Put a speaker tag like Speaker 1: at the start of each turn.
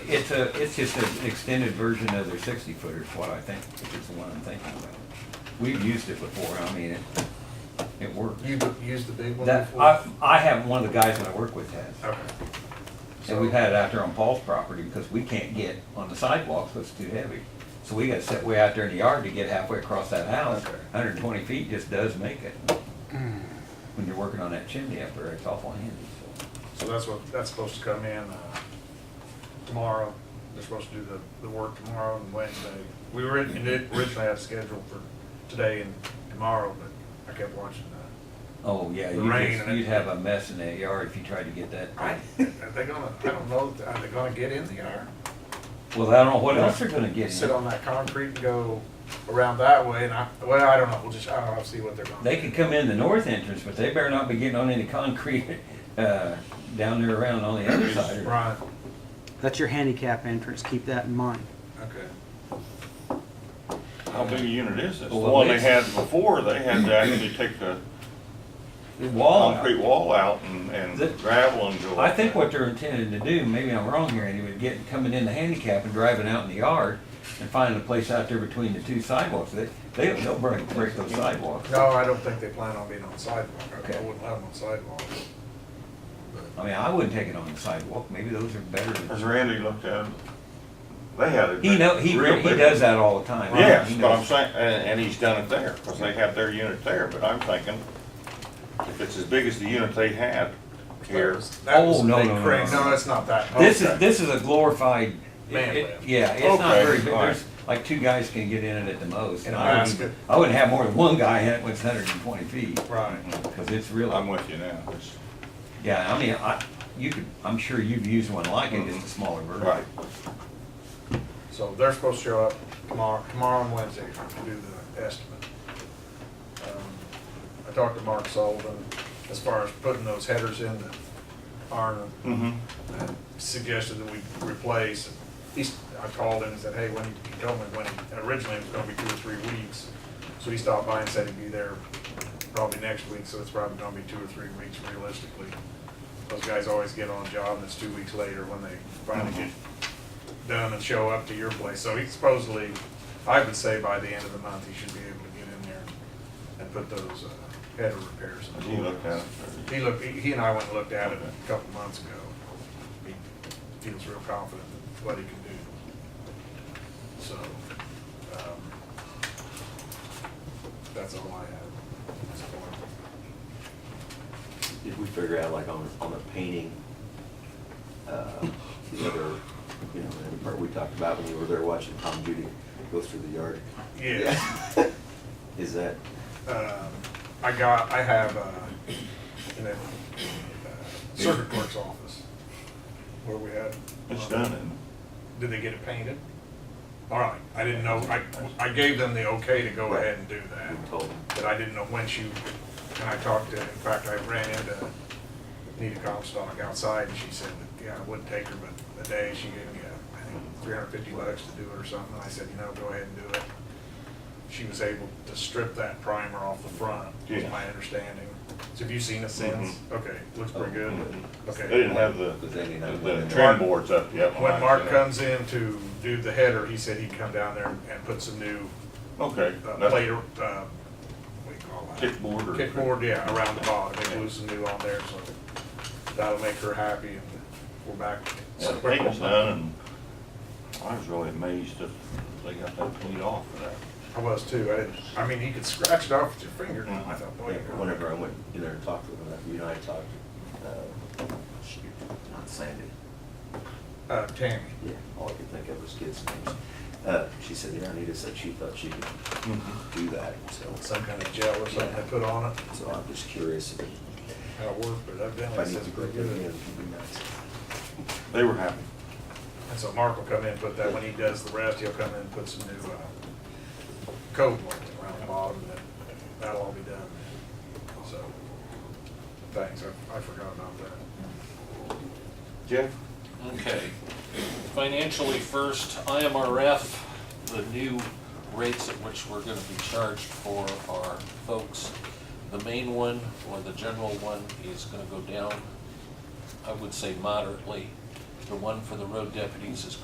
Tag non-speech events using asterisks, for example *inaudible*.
Speaker 1: it's a, it's just an extended version of their sixty footer, is what I think, is the one I'm thinking about. We've used it before, I mean, it, it worked.
Speaker 2: You used the big one
Speaker 1: That,
Speaker 2: before?
Speaker 1: I, I have, one of the guys that I work with has.
Speaker 2: Okay.
Speaker 1: And we've had it out there on Paul's property because we can't get on the sidewalks, it's too heavy. So we gotta sit way out there in the yard to get halfway across that house.
Speaker 2: Okay. Hmm.
Speaker 1: Hundred and twenty feet just does make it. When you're working on that chimney up there, it's awful handy, so.
Speaker 2: So that's what, that's supposed to come in uh, tomorrow. They're supposed to do the, the work tomorrow and Wednesday. We were, in- originally had it scheduled for today and tomorrow, but I kept watching the,
Speaker 1: Oh, yeah,
Speaker 2: The
Speaker 1: you'd
Speaker 2: rain
Speaker 1: just-
Speaker 2: and it-
Speaker 1: you'd have a mess in that yard if you tried to get that.
Speaker 2: I, are they gonna, I don't know, are they gonna get in the iron?
Speaker 1: Well, I don't know what else they're gonna get
Speaker 2: Sit
Speaker 1: in.
Speaker 2: on that concrete and go around that way and I, well, I don't know, we'll just, I don't know, see what they're gonna.
Speaker 1: They could come in the north entrance, but they better not be getting on any concrete, *laughs* uh, down there around on the other side. or-
Speaker 2: Right,
Speaker 3: That's your handicap entrance, keep that in mind.
Speaker 2: okay.
Speaker 4: How big a unit is this? The
Speaker 1: Well,
Speaker 4: one they
Speaker 1: it's-
Speaker 4: had before, they had to actually
Speaker 1: *clears throat*
Speaker 4: take the
Speaker 1: The Wall. out.
Speaker 4: concrete wall out and, and
Speaker 1: The-
Speaker 4: gravel and go.
Speaker 1: I
Speaker 4: up
Speaker 1: think
Speaker 4: there.
Speaker 1: what they're intending to do, maybe I'm wrong here, Andy, but getting, coming in the handicap and driving out in the yard and finding a place out there between the two sidewalks, they, they don't, they'll break, break those sidewalks.
Speaker 2: No, I don't think they plan on being on sidewalk. I-
Speaker 1: Okay.
Speaker 2: I wouldn't let them on sidewalk.
Speaker 1: I mean, I wouldn't take it on the sidewalk, maybe those are better
Speaker 4: As
Speaker 1: than,
Speaker 4: Randy looked at it, they had a.
Speaker 1: he know, he,
Speaker 4: real
Speaker 1: re- he
Speaker 4: big-
Speaker 1: does that all the time.
Speaker 4: Yes,
Speaker 1: He
Speaker 4: but I'm
Speaker 1: knows.
Speaker 4: saying, and, and he's done it there, because they have their unit there, but I'm thinking, if it's as big as the unit they had
Speaker 2: That
Speaker 4: here,
Speaker 2: was- That was
Speaker 1: Oh,
Speaker 2: a
Speaker 1: no,
Speaker 2: big
Speaker 1: no, no,
Speaker 2: crane.
Speaker 1: no, no.
Speaker 2: No, it's not that.
Speaker 1: This
Speaker 2: Okay.
Speaker 1: is, this is a glorified, it-
Speaker 2: Man
Speaker 1: it-
Speaker 2: lift.
Speaker 1: yeah, it's not
Speaker 4: Okay,
Speaker 1: very big,
Speaker 4: all right.
Speaker 1: there's, like, two guys can get in it at the most.
Speaker 2: In
Speaker 1: And
Speaker 2: a
Speaker 1: I wouldn't,
Speaker 2: basket.
Speaker 1: even- I wouldn't have more than one guy in it when it's hundred and twenty feet,
Speaker 2: Right.
Speaker 1: cause it's really.
Speaker 4: I'm with you now. It's-
Speaker 1: Yeah, I mean, I, you could, I'm sure you've used one like it, just a smaller version.
Speaker 4: Mm-hmm. Right.
Speaker 2: So they're supposed to show up tomorrow, tomorrow and Wednesday to do the estimate. Um, I talked to Mark Sullivan as far as putting those headers in the iron
Speaker 4: Mm-hmm.
Speaker 2: and suggested that we replace. He's, I called him and said, hey, when, he he told me when, he- originally it was gonna be two or three weeks. So he stopped by and said he'd be there probably next week, so it's probably gonna be two or three weeks realistically. Those guys always get on a job and it's two weeks later when they finally get done and show up to your place. So he supposedly, I would say by the end of the month, he should be able to get in there and put those uh, header repairs. in.
Speaker 4: He looked at it.
Speaker 2: He looked, he he and I went and looked at it a couple months ago. He feels real confident in what he can do. So, um, that's all I have. at this point.
Speaker 5: Did we figure out like on, on the painting, uh, whether, you know, that part we talked about when we were there watching Tom Judy go through the yard?
Speaker 2: Yeah.
Speaker 5: *laughs* Is that,
Speaker 2: um, I got, I have, uh, in a uh, circuit clerk's office where we had.
Speaker 4: It's done, isn't it?
Speaker 2: Did they get it painted? All right, I didn't know, I, I gave them the okay to go ahead and do that.
Speaker 5: we told them,
Speaker 2: But I didn't know when she, and I talked to, in fact, I ran into Nita Comstock outside and she said that, yeah, it wouldn't take her but a day. She gave me, uh, I think, three hundred fifty bucks to do it or something. I said, you know, go ahead and do it. She was able to strip that primer off the front, is
Speaker 4: Yeah.
Speaker 2: my understanding. So have you seen it since?
Speaker 5: Mm-hmm.
Speaker 2: Okay, looks pretty good.
Speaker 4: They
Speaker 2: Okay.
Speaker 4: didn't have the,
Speaker 5: Does any not-
Speaker 4: the trim boards up yet.
Speaker 2: When
Speaker 4: I
Speaker 2: Mark
Speaker 4: said-
Speaker 2: comes in to do the header, he said he'd come down there and put some new
Speaker 4: Okay.
Speaker 2: uh,
Speaker 4: that's-
Speaker 2: later, uh, what do you call that?
Speaker 4: Kickboard or?
Speaker 2: Kickboard, yeah, around the bottom, they glue some new on there, so that'll make her happy, and we're back.
Speaker 4: Yeah, the paint was done, and I was really amazed that they got that cleaned off for that.
Speaker 2: I was too, I didn't, I mean, you could scratch it off with your finger,
Speaker 5: Mm-hmm.
Speaker 2: I thought, boy. you're gonna-
Speaker 5: whenever I went in there and talked to them, you and I talked, uh, shoot, not Sandy,
Speaker 2: Uh, Tammy,
Speaker 5: yeah, all I could think of was kids' names. Uh, she said, yeah, Anita said she thought she could do that, so,
Speaker 2: some kind of gel or something they put on it,
Speaker 5: so I'm just curious if it-
Speaker 2: how it worked, but
Speaker 5: if I
Speaker 2: evidently
Speaker 5: need
Speaker 2: it's
Speaker 5: to break
Speaker 2: pretty
Speaker 5: it again,
Speaker 2: good.
Speaker 5: it'd be nice.
Speaker 4: They were happy.
Speaker 2: And so Mark will come in, and put that, when he does the rest, he'll come in and put some new, uh, coat lines around the bottom, and then that'll all be done. So, thanks, I, I forgot about that.
Speaker 4: Jeff?
Speaker 6: Okay. Financially first, IMRF, the new rates at which we're gonna be charged for our folks. The main one, or the general one, is gonna go down, I would say moderately. The one for the road deputies is